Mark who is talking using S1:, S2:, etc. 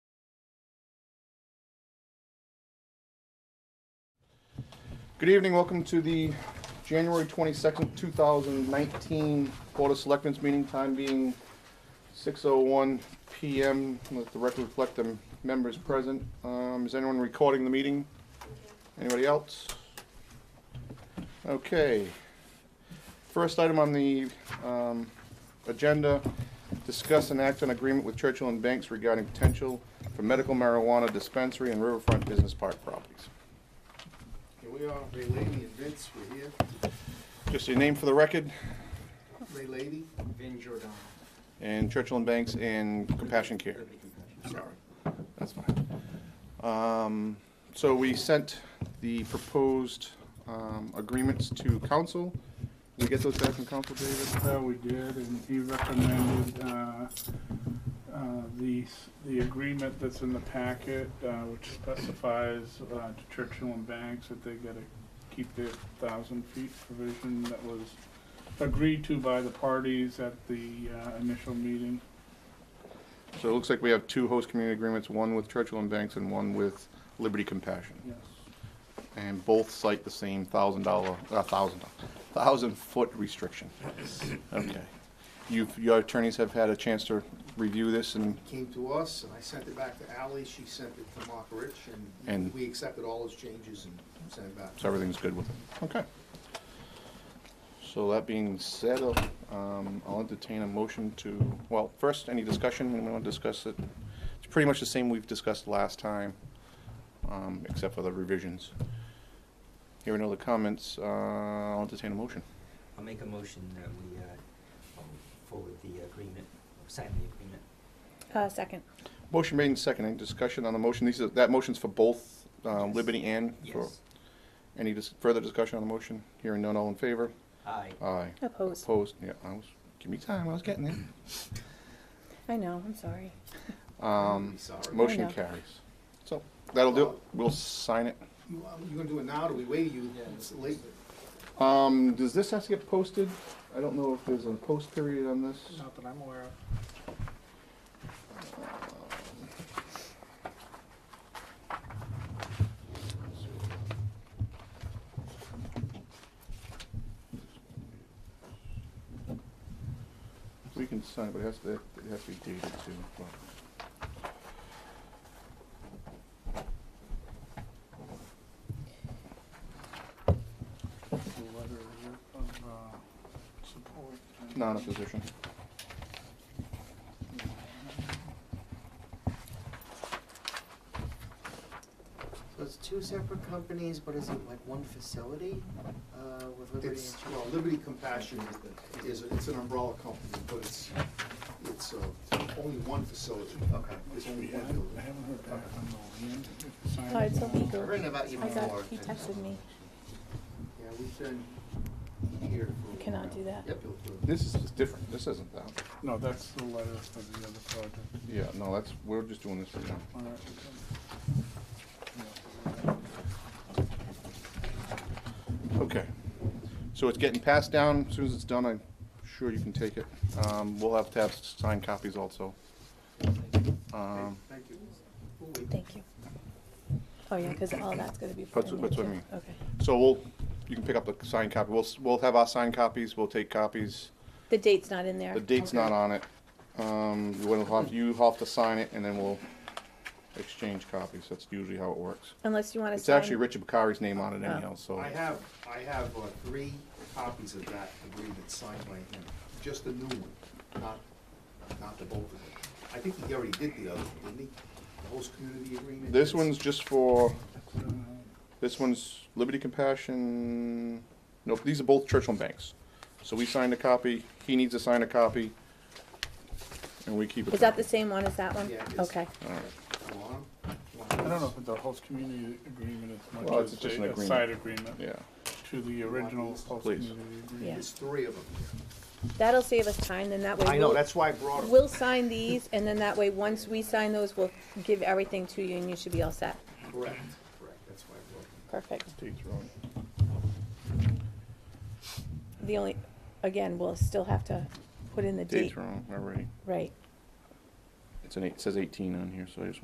S1: Good evening, welcome to the January 22nd, 2019 Board of Selectmen's meeting, time being 6:01 PM. Let the record reflect the members present. Um, Is anyone recording the meeting? Anybody else? Okay. First item on the um, agenda, discuss and act on agreement with Churchill and Banks regarding potential for medical marijuana dispensary and riverfront business park properties.
S2: Here we are, Ray Lady and Vince, we're here.
S1: Just your name for the record,
S2: Ray Lady,
S3: Vin Giordano.
S1: and Churchill and Banks and Compassion Care.
S2: sorry.
S1: That's fine. Um, So we sent the proposed um, agreements to council. Did we get those back from council, David?
S4: That we did, and he recommended uh, uh, the, s- the agreement that's in the packet, uh, which specifies uh, to Churchill and Banks that they gotta keep their thousand feet provision that was agreed to by the parties at the uh, initial meeting.
S1: So it looks like we have two host community agreements, one with Churchill and Banks and one with Liberty Compassion.
S4: Yes.
S1: And both cite the same thousand dollar, uh, thousand, thousand foot restriction. Okay. You've, your attorneys have had a chance to review this and
S2: Came to us, and I sent it back to Ally, she sent it to Mark Rich,
S1: And-
S2: and we accepted all his changes and sent it back.
S1: So everything's good with it. Okay. So that being said, um, I'll entertain a motion to, well, first, any discussion, and we want to discuss it. It's pretty much the same we've discussed last time, um, except for the revisions. Hearing no other comments, uh, I'll entertain a motion.
S3: I'll make a motion that we uh, um, forward the agreement, sign the agreement.
S5: Uh, second.
S1: Motion made and second, any discussion on the motion? These are, that motion's for both, uh,
S3: Yes.
S1: Liberty and for,
S3: Yes.
S1: any dis- further discussion on the motion? Hearing none, all in favor?
S3: Aye.
S1: Aye.
S5: Oppose.
S1: Opposed, yeah, I was, give me time, I was getting there.
S5: I know, I'm sorry.
S1: Um,
S2: I'm sorry.
S1: motion
S5: I know.
S1: carries. So, that'll do it. We'll sign it.
S2: You, um, you gonna do it now, do we wait you, it's late,
S1: Um, does this have to get posted? I don't know if there's a post period on this.
S6: Not that I'm aware of.
S1: We can sign it, but it has to, it has to be dated too. but-
S4: The letter of uh, support.
S1: Not a position.
S7: So it's two separate companies, but is it like one facility, uh, with Liberty
S2: it's,
S7: and
S2: well, Liberty Compassion is the, is, it's an umbrella company, but it's, it's, uh, only one facility.
S7: Okay.
S2: It's
S4: I
S2: only one building.
S4: haven't heard back on the land.
S5: Oh, it's so
S4: Signing, uh,
S5: legal.
S7: Written about you
S5: I got,
S7: more.
S5: he texted me.
S2: Yeah, we've been here for. a while.
S5: Cannot do that.
S2: Yep.
S1: This is is different. This isn't that.
S4: No, that's the letter for the other project.
S1: Yeah, no, that's, we're just doing this right now.
S4: All right, okay.
S1: Okay. So it's getting passed down. As soon as it's done, I'm sure you can take it. Um, we'll have to have signed copies also. Um,
S2: Thank you.
S5: Thank you. Oh, yeah, because all that's gonna be. put
S1: That's
S5: in
S1: what- that's
S5: there,
S1: what I
S5: too. Okay.
S1: So we'll, you can pick up the signed copy. We'll, s- we'll have our signed copies, we'll take copies.
S5: The date's not in there.
S1: The date's not
S2: Okay.
S1: on it. Um, you will have, you have to sign it and then we'll exchange copies. That's usually how it works.
S5: Unless you want to
S1: It's
S5: sign.
S1: actually Richard Bakari's name on it anyhow, so.
S2: I have, I have uh, three copies of that agreement signed by him, just the new one, not, not the both of them. I think he already did the other one, didn't he? The host community agreement?
S1: This one's just for,
S4: Uh,
S1: this one's Liberty Compassion, nope, these are both Churchill and Banks. So we signed a copy, he needs to sign a copy, and we keep it.
S5: Is that the same one as that one?
S2: Yeah, it is.
S5: Okay.
S1: All right.
S2: You want 'em? You want
S4: I don't know
S2: these?
S4: if the host community agreement is
S1: Well,
S4: much
S1: it's
S4: as
S1: just an
S4: a- a
S1: agreement.
S4: side agreement
S1: Yeah,
S4: to the original
S2: Please.
S4: host community agreement.
S5: Yeah.
S2: There's three of them
S5: That'll save us time, then that way.
S2: here. I know,
S5: we'll-
S2: that's why I brought them.
S5: We'll sign these, and then that way, once we sign those, we'll give everything to you, and you should be all set.
S2: Correct, correct, that's why I brought them.
S5: Perfect.
S1: date's wrong.
S5: The only, again, we'll still have to put in the date.
S1: Date's wrong already.
S5: Right.
S1: It's an eight, it says eighteen on here, so I just